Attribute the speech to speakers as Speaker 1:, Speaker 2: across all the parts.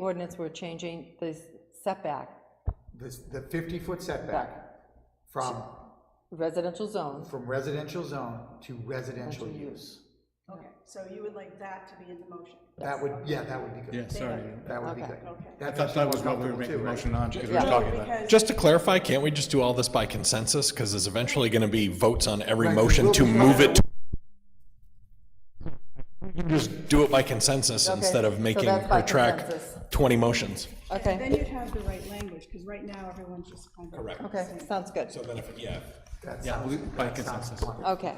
Speaker 1: ordinance, we're changing the setback,
Speaker 2: This, the fifty-foot setback from,
Speaker 1: residential zone,
Speaker 2: from residential zone to residential use.
Speaker 3: Okay, so you would like that to be in the motion?
Speaker 2: That would, yeah, that would be good.
Speaker 4: Yeah, sorry.
Speaker 2: That would be
Speaker 1: Okay.
Speaker 2: good.
Speaker 3: Okay.
Speaker 2: That's
Speaker 4: That, that was
Speaker 2: actually more
Speaker 4: what we were
Speaker 2: comfortable
Speaker 4: making
Speaker 2: too,
Speaker 4: the
Speaker 2: right?
Speaker 4: motion on, because we were
Speaker 1: Yeah.
Speaker 4: talking about.
Speaker 3: Because,
Speaker 5: Just to clarify, can't we just do all this by consensus? Because there's eventually going to be votes on every
Speaker 2: Right, 'cause
Speaker 5: motion
Speaker 2: we'll
Speaker 5: to
Speaker 2: be-
Speaker 5: move it. Just do it by consensus
Speaker 1: Okay,
Speaker 5: instead of
Speaker 1: so
Speaker 5: making
Speaker 1: that's by
Speaker 5: her track
Speaker 1: consensus.
Speaker 5: 20 motions.
Speaker 1: okay,
Speaker 3: then you'd have the right language, because right now, everyone's just kind of.
Speaker 5: Correct.
Speaker 1: okay, sounds good,
Speaker 5: So then if, yeah.
Speaker 2: That
Speaker 4: Yeah,
Speaker 2: sounds-
Speaker 4: we- by
Speaker 2: that sounds
Speaker 4: consensus.
Speaker 2: wonderful.
Speaker 1: okay.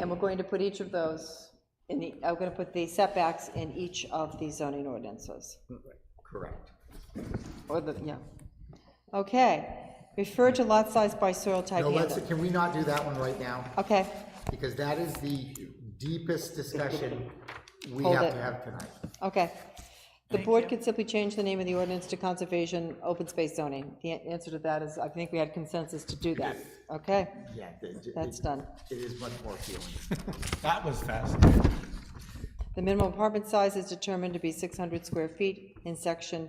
Speaker 1: And we're going to put each of those in the, I'm gonna put the setbacks in each of the zoning ordinances,
Speaker 2: Hmm. Correct.
Speaker 1: or the, yeah. Okay, refer to lot size by soil type
Speaker 2: No, let's,
Speaker 1: handle.
Speaker 2: can we not do that one right now?
Speaker 1: Okay,
Speaker 2: Because that is the deepest discussion we
Speaker 1: Hold
Speaker 2: have
Speaker 1: it.
Speaker 2: to have tonight.
Speaker 1: okay. The board could simply change the name of the ordinance to conservation, open space zoning. The an- answer to that is, I think we had consensus to do that, okay?
Speaker 2: Yeah, it- it-
Speaker 1: That's done.
Speaker 2: It is much more appealing.
Speaker 4: That was fast.
Speaker 1: The minimum apartment size is determined to be 600 square feet in section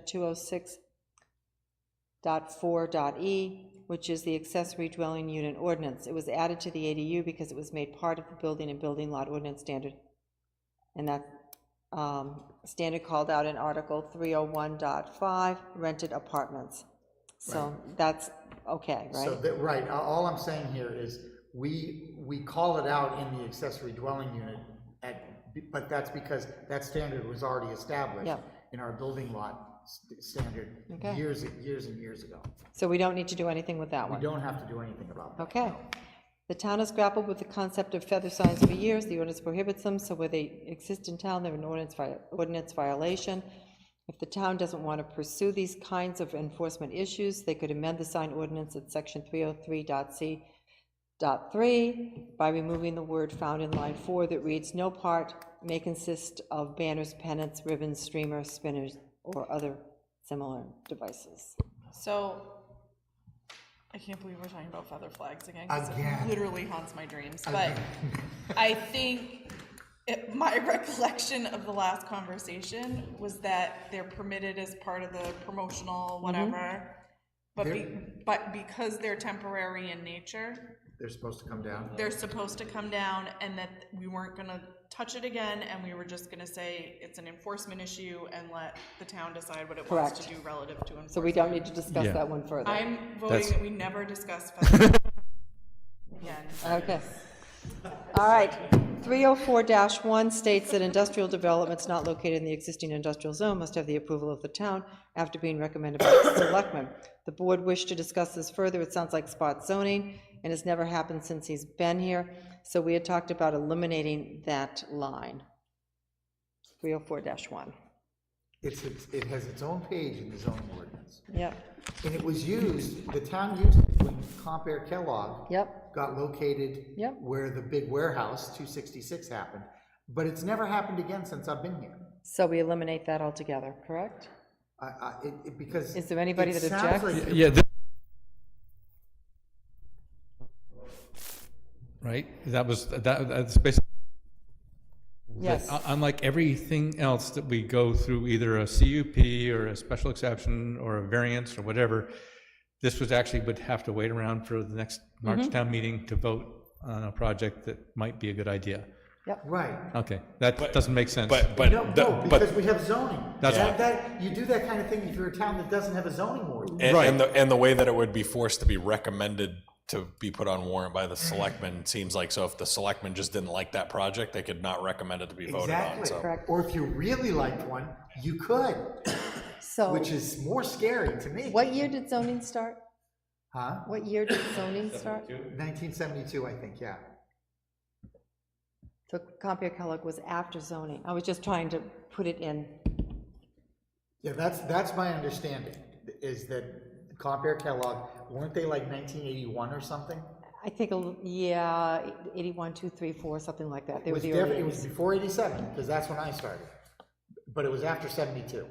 Speaker 1: 206.4.e, E, which is the accessory dwelling unit ordinance. It was added to the ADU because it was made part of the building and building lot ordinance standard. And that um, standard called out in Article 301.5, rented apartments. So that's okay,
Speaker 2: So
Speaker 1: right?
Speaker 2: that, right, a- all I'm saying here is, we, we call it out in the accessory dwelling unit at, but that's because that standard was already established
Speaker 1: Yeah.
Speaker 2: in our building lot st- standard
Speaker 1: Okay.
Speaker 2: years, and- years and years ago.
Speaker 1: So we don't need to do anything with that
Speaker 2: We
Speaker 1: one.
Speaker 2: don't have to do anything about that.
Speaker 1: Okay. The town has grappled with the concept of feather signs for years. The ordinance prohibits them, so where they exist in town, they're an ordinance vi- ordinance violation. If the town doesn't want to pursue these kinds of enforcement issues, they could amend the sign ordinance at section 303.c Dot three, by removing the word found in line four that reads, "No part may consist of banners, pennants, ribbons, streamers, spinners, or other similar devices."
Speaker 6: So, I can't believe we're talking about feather flags again. 'cause
Speaker 2: Again.
Speaker 6: It literally haunts my dreams. But I think it, my recollection of the last conversation was that they're permitted as part of the
Speaker 1: Mm-hmm.
Speaker 6: promotional whatever. But be, but because they're temporary in nature,
Speaker 2: They're supposed to come down.
Speaker 6: they're supposed to come down, and that we weren't gonna touch it again, and we were just gonna say it's an enforcement issue and let the town decide what it wants to
Speaker 1: Correct.
Speaker 6: do relative to enforcement.
Speaker 1: So we don't need to discuss
Speaker 5: Yeah.
Speaker 1: that one further.
Speaker 6: I'm voting
Speaker 5: That's-
Speaker 6: that we never discuss feather again.
Speaker 1: Okay. All right. 304-1 states that industrial developments not located in the existing industrial zone must have the approval of the town after being recommended by the selectmen. The board wished to discuss this further. It sounds like spot zoning, and it's never happened since he's been here. So we had talked about eliminating that line. 304-1.
Speaker 2: It's, it's- it has its own page in the zoning ordinance.
Speaker 1: Yep,
Speaker 2: And it was used, the town used it when Comp Air Kellogg
Speaker 1: yep.
Speaker 2: got located
Speaker 1: Yep.
Speaker 2: where the big warehouse, 266, happened. But it's never happened again since I've been here.
Speaker 1: So we eliminate that altogether, correct?
Speaker 2: I, I, it, it, because.
Speaker 1: Is there anybody
Speaker 2: it
Speaker 1: that
Speaker 2: sounds
Speaker 1: objects?
Speaker 2: like-
Speaker 4: Yeah. thi- Right, that was, that, that's basically.
Speaker 1: Yes.
Speaker 4: Un- Unlike everything else that we go through, either a CUP or a special exception or a variance or whatever, this was actually would have to wait around for the next
Speaker 1: Mm-hmm.
Speaker 4: March town meeting to vote on a project that might be a good idea.
Speaker 2: Right.
Speaker 4: Okay, that doesn't make sense.
Speaker 5: But,
Speaker 2: No,
Speaker 5: but,
Speaker 2: no,
Speaker 5: the-
Speaker 2: because
Speaker 5: but,
Speaker 2: we have zoning.
Speaker 4: That's
Speaker 2: That-
Speaker 4: fine.
Speaker 2: That, you do that kind of thing if you're a town that doesn't have a zoning ordinance.
Speaker 5: and- and the, and the way that it would be forced to be recommended to be put on warrant by the selectmen seems like, so if the selectmen just didn't like that project, they could not recommend it to be voted on,
Speaker 2: Exactly.
Speaker 5: so.
Speaker 2: Or if you really liked one, you could,
Speaker 1: So
Speaker 2: which is more scary to me.
Speaker 1: what year did zoning start?
Speaker 2: Huh?
Speaker 1: What year did zoning start?
Speaker 2: 1972, I think, yeah.
Speaker 1: So Compere Kellogg was after zoning. I was just trying to put it in.
Speaker 2: Yeah, that's, that's my understanding, is that Compare Kellogg, weren't they like 1981 or something?
Speaker 1: I think, a l- yeah, 81, 2, 3, 4, something like that. They
Speaker 2: It
Speaker 1: were
Speaker 2: was,
Speaker 1: the
Speaker 2: def-
Speaker 1: early
Speaker 2: it was
Speaker 1: years.
Speaker 2: before 87, because that's when I started. But it was after 72.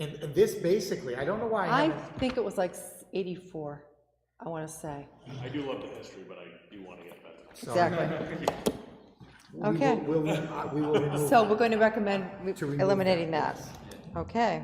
Speaker 2: And, and this basically, I don't know why I
Speaker 1: I
Speaker 2: haven't
Speaker 1: think it was like s- 84, I want to say.
Speaker 7: I do love the history, but I do want to get better.
Speaker 1: Exactly.
Speaker 2: We will-
Speaker 1: Okay.
Speaker 2: we'll- uh, We will remove
Speaker 1: So we're going to recommend re-
Speaker 2: remove that,
Speaker 1: eliminating that. Okay.